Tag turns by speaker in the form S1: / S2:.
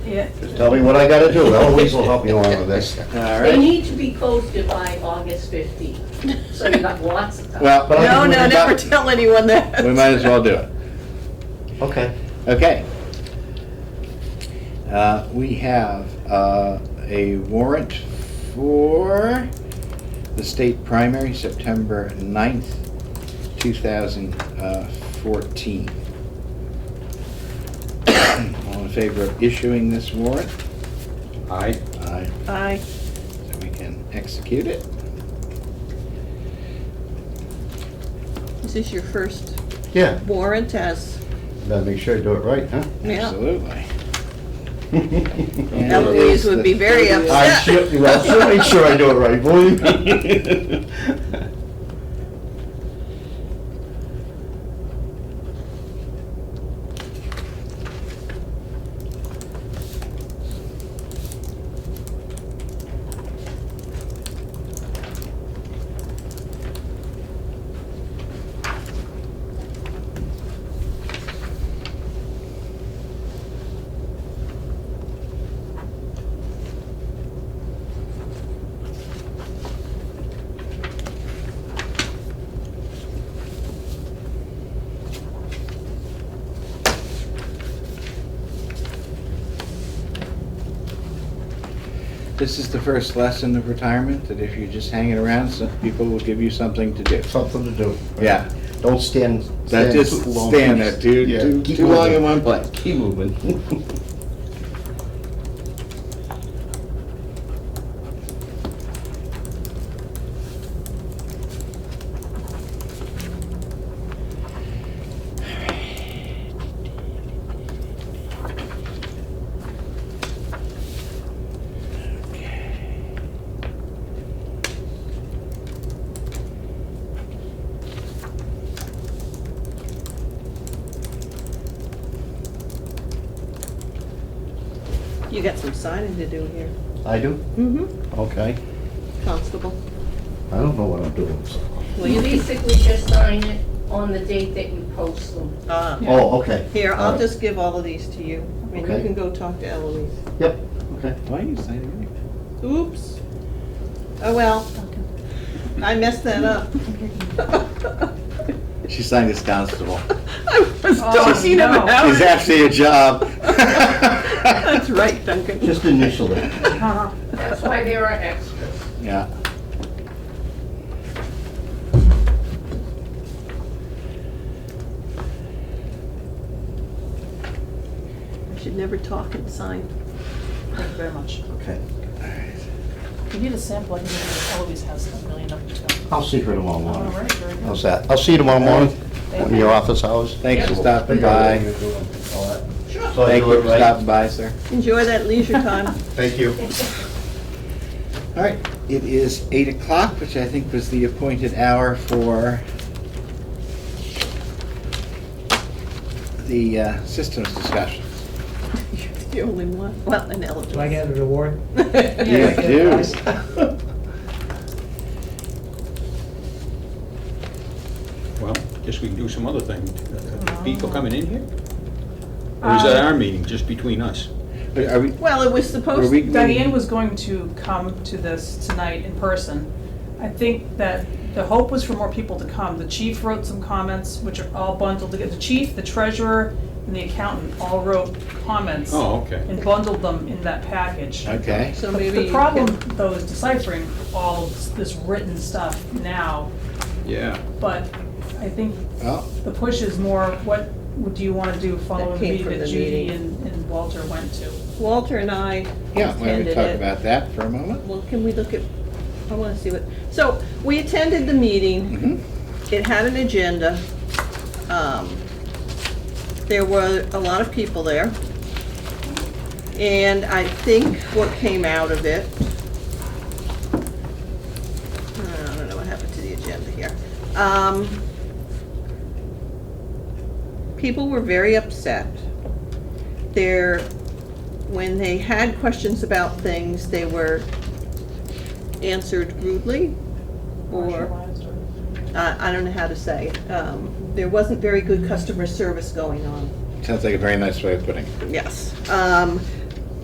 S1: Yeah.
S2: Just tell me what I gotta do, Eloise will help you along with this.
S3: All
S4: They
S3: right.
S4: need to be posted by August 15th, so you've got lots of time.
S3: Well,
S2: But I
S1: No,
S2: think we
S1: no,
S2: can
S1: never
S2: back-
S1: tell anyone that.
S3: we might as well do it.
S2: Okay.
S3: Okay. Uh, We have uh, a warrant for the state primary, September 9th, uh, 2014. All in favor of issuing this warrant?
S5: Aye.
S3: Aye.
S1: Aye.
S3: So we can execute it.
S1: This is your first
S2: Yeah,
S1: warrant as,
S2: better make sure I do it right, huh?
S1: yeah.
S3: Absolutely.
S2: I'm
S3: And it
S1: Eloise
S3: is
S1: would
S3: the
S1: be very
S3: 30th.
S1: upset.
S2: sure, well, sure make sure I do it right, believe me.
S3: This is the first lesson of retirement, that if you're just hanging around, some people will give you something to do.
S2: Something to do.
S3: Yeah.
S2: Don't stand.
S3: That just
S2: too long.
S3: stand there too,
S2: Yeah,
S3: too,
S2: keep
S3: too long
S2: moving.
S3: in one place.
S2: Keep moving.
S1: You got some signing to do here.
S2: I do?
S1: Mm-hmm.
S2: Okay.
S1: Constable.
S2: I don't know what I'm doing, so.
S1: Will
S4: You
S1: you be?
S4: basically just sign it on the date that you post them.
S1: Ah.
S2: Oh, okay.
S1: Here,
S2: All
S1: I'll
S2: right.
S1: just give all of these to you, and you
S2: Okay.
S1: can go talk to Eloise.
S2: Yep, okay.
S3: Why are you signing it?
S1: Oops. Oh, well, I messed that up.
S3: She signed as constable.
S1: I was
S6: Oh,
S1: talking
S6: no.
S1: about
S3: She's
S1: it.
S3: after your job.
S1: That's right, Duncan.
S2: Just initial it.
S6: Uh-huh.
S4: That's why there are extras.
S3: Yeah.
S1: I Should never talk and sign.
S6: Thank you very much.
S2: Okay.
S6: You need a sample, I can give you, Eloise has a million of them.
S2: I'll see her tomorrow
S6: All
S2: morning.
S6: right, very good.
S2: How's that? I'll see you tomorrow morning, in your office hours.
S3: Thanks for
S2: Yeah.
S3: stopping
S2: Figure out what
S3: by.
S2: you're doing, all that.
S4: Sure.
S2: So I
S3: Thank
S2: do
S3: Oh, you
S2: it
S3: for
S2: right?
S3: stopping by, sir.
S1: Enjoy that leisure time.
S2: Thank you.
S3: All right, it is eight o'clock, which I think was the appointed hour for the uh, systems discussion.
S1: You're the only one, well, and Eloise.
S7: Do I get a reward?
S3: Yeah,
S6: Yeah.
S3: do.
S5: Well, guess we can do some other thing. Uh, People coming in here?
S6: Uh,
S5: Or is that our meeting, just between us?
S3: Are we,
S1: Well, it was
S3: were
S1: supposed,
S3: we?
S6: Diane was going to come to this tonight in person. I think that the hope was for more people to come. The chief wrote some comments, which are all bundled together. The chief, the treasurer, and the accountant all wrote comments
S5: Oh, okay.
S6: and bundled them in that package.
S3: Okay.
S1: so
S6: The-
S1: maybe. you
S6: The
S1: can-
S6: problem, though, is deciphering all this written stuff now,
S5: Yeah.
S6: but I think
S3: Well,
S6: the push is more, what do you want to do following the
S1: came
S6: meeting
S1: from
S6: that
S1: the
S6: Judy
S1: meeting.
S6: and and Walter went to?
S1: Walter and I
S3: yeah, why don't we
S1: attended
S3: talk
S1: it.
S3: about that for a moment?
S1: Well, can we look at, I wanna see what, so, we attended the meeting.
S3: Mhm.
S1: It had an agenda. Um, There were a lot of people there. And I think what came out of it, I don't know what happened to the agenda here. Um, People were very upset. There, when they had questions about things, they were answered rudely or
S6: Marginalized or-
S1: I I don't know how to say. Um, There wasn't very good customer service going on.
S3: Sounds like a very nice way of putting it.
S1: Yes. Um,